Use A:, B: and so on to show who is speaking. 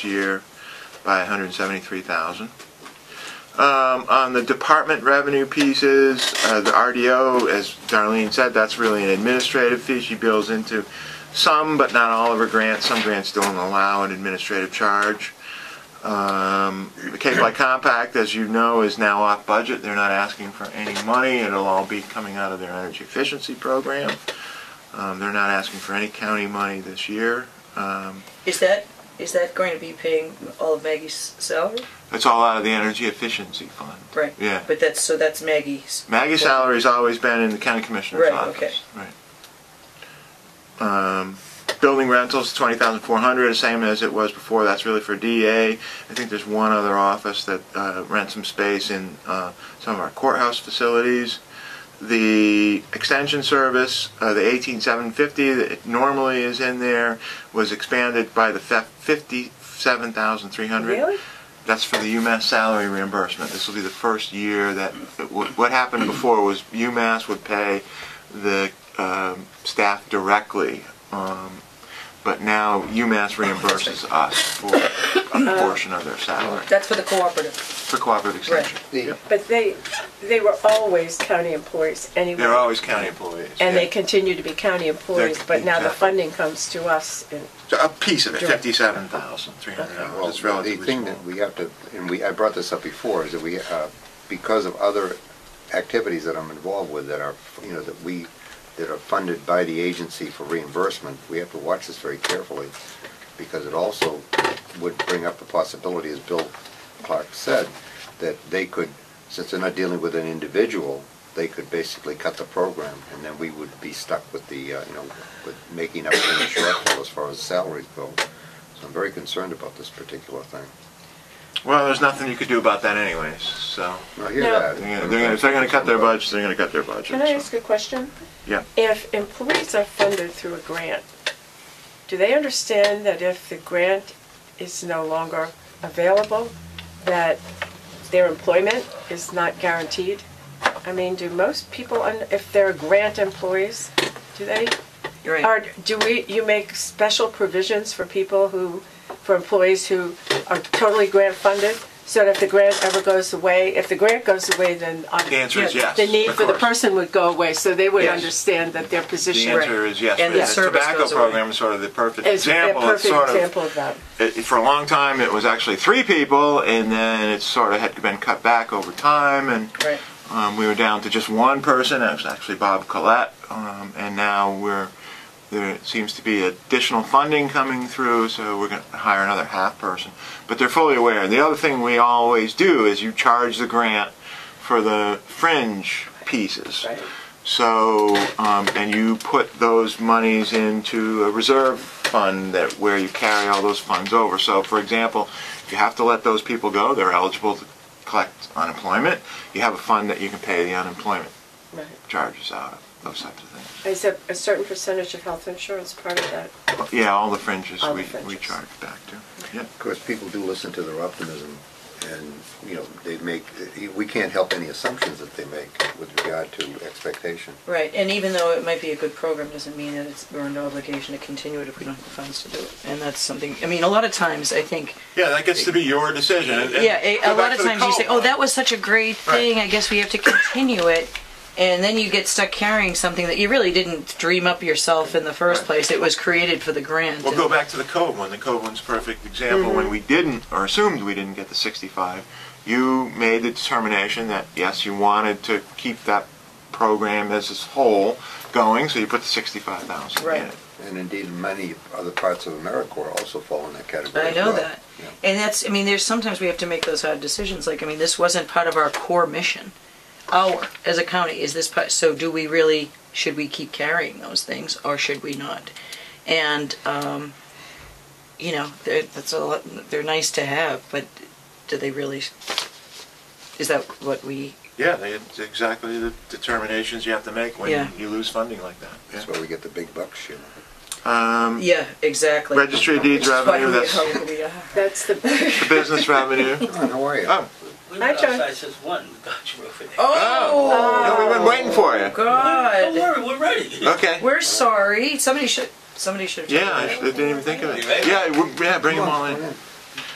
A: year by 173,000. Um, On the department revenue pieces, uh, the RDO, as Darlene said, that's really an administrative fee. She bills into some, but not all of her grants. Some grants don't allow an administrative charge. Um, The Cape Light Compact, as you know, is now off budget. They're not asking for any money. It'll all be coming out of their energy efficiency program. Um, They're not asking for any county money this year. Um,
B: Is that, is that going to be paying all of Maggie's salary?
A: That's all out of the energy efficiency fund.
B: Right.
A: Yeah.
B: But that's, so that's Maggie's.
A: Maggie's salary's always been in the county commissioner's
B: Right,
A: office. Right. Um, building rentals, twenty thousand four hundred, same as it was before. That's really for DA. I think there's one other office that uh, rents some space in uh, some of our courthouse facilities. The extension service, uh, the eighteen seven fifty that it normally is in there, was expanded by the fifty seven thousand three hundred.
B: Really?
A: That's for the UMass salary reimbursement. This will be the first year that, what what happened before was UMass would pay the um, staff directly, um, but now UMass reimburses us for a portion of their salary,
B: That's for the cooperative.
A: for cooperative extension. Yep.
C: But they, they were always county employees anyway.
A: They're always county employees.
C: And they
A: yeah.
C: continue to be county employees, but now the
A: exactly.
C: funding comes to us. and-
A: So A piece of it, fifty-seven thousand, three hundred
D: Well,
A: dollars, it's
D: the
A: relatively
D: thing
A: small.
D: that we have to, and we, I brought this up before, is that we, uh, because of other activities that I'm involved with that are, you know, that we, that are funded by the agency for reimbursement, we have to watch this very carefully, because it also would bring up the possibility, as Bill Clark said, that they could, since they're not dealing with an individual, they could basically cut the program, and then we would be stuck with the, uh, you know, with making up for the shortfall as far as salaries go. So I'm very concerned about this particular thing.
A: Well, there's nothing you could do about that anyways, so,
D: I hear
C: Now-
D: that.
A: they're gonna- they're gonna, if they're gonna cut their budgets, they're gonna cut their budgets.
C: Can I ask a question?
A: Yeah.
C: If employees are funded through a grant, do they understand that if the grant is no longer available, that their employment is not guaranteed? I mean, do most people, un- if they're grant employees, do they
B: You're right.
C: Or do we, you make special provisions for people who, for employees who are totally grant funded? So that if the grant ever goes away, if the grant goes away, then. um,
A: The answer is yes,
C: The need
A: of
C: for the
A: course.
C: person would go away, so they would
A: Yes.
C: understand that their
A: The
C: position
A: answer is yes.
B: And
A: but
B: the service
A: tobacco
B: goes away.
A: program is sort of the perfect
C: is a
A: example. It's
C: perfect
A: sort of,
C: example of that.
A: it- for a long time, it was actually three people, and then it sort of had been cut back over time, and
B: Right.
A: um, we were down to just one person. That was actually Bob Collette, um, and now we're there seems to be additional funding coming through, so we're going to hire another half person. But they're fully aware. And the other thing we always do is you charge the grant for the fringe pieces.
C: Right.
A: So, um, and you put those monies into a reserve fund that, where you carry all those funds over. So, for example, if you have to let those people go, they're eligible to collect unemployment. You have a fund that you can pay the unemployment
C: Right.
A: charges out of, those types of things.
C: Is a, a certain percentage of health insurance part of that?
A: Yeah, all the fringes
C: All the
A: we, we
C: fringes.
A: charge back to. Yep.
D: Of course, people do listen to their optimism, and, you know, they make, we can't help any assumptions that they make with regard to expectation.
B: Right, and even though it might be a good program, doesn't mean that it's, we're under obligation to continue it if we don't have the funds to do it. And that's something, I mean, a lot of times, I think,
A: Yeah, that gets to be your decision. and- and
B: yeah, a- a
A: go
B: lot
A: back
B: of
A: to the
B: times you say,
A: call.
B: oh, that was such a great
A: Right.
B: thing, I guess we have to continue it. And then you get stuck carrying something that you really didn't dream up yourself in the first place. It was created for the grant.
A: Well, go back to the Cove one. The Cove one's a perfect example. When
B: Mm-hmm.
A: we didn't, or assumed we didn't get the 65, you made the determination that, yes, you wanted to keep that program as a whole going, so you put the 65,000 in
B: Right.
A: it.
D: And indeed, many other parts of AmeriCorps also fall in that category
B: I
D: as
B: know
D: well.
B: that.
D: Yeah.
B: And that's, I mean, there's sometimes we have to make those hard decisions. Like, I mean, this wasn't part of our core mission. Our, as a county, is this part, so do we really, should we keep carrying those things or should we not? And, um, you know, they're, that's a lot, they're nice to have, but do they really, is that what we,
A: Yeah, they, it's exactly the determinations you have to make when
B: Yeah.
A: you lose funding like that.
D: That's why we get the big bucks, you know.
A: Um,
B: yeah, exactly.
A: Registry of deeds revenue, that's the
B: How we uh, are.
C: That's the,
A: business revenue.
D: John, how are you?
A: Oh,
E: We
C: Hi,
E: went
C: John.
E: outside since one, got you over there.
B: Oh,
A: no, we've been waiting for you.
E: Don't
B: God.
E: worry, we're ready.
A: Okay.
B: We're sorry. Somebody should, somebody should have.
A: Yeah, I didn't even think of it.
E: You ready?
A: Yeah, we- yeah, bring them all in.
D: Come on,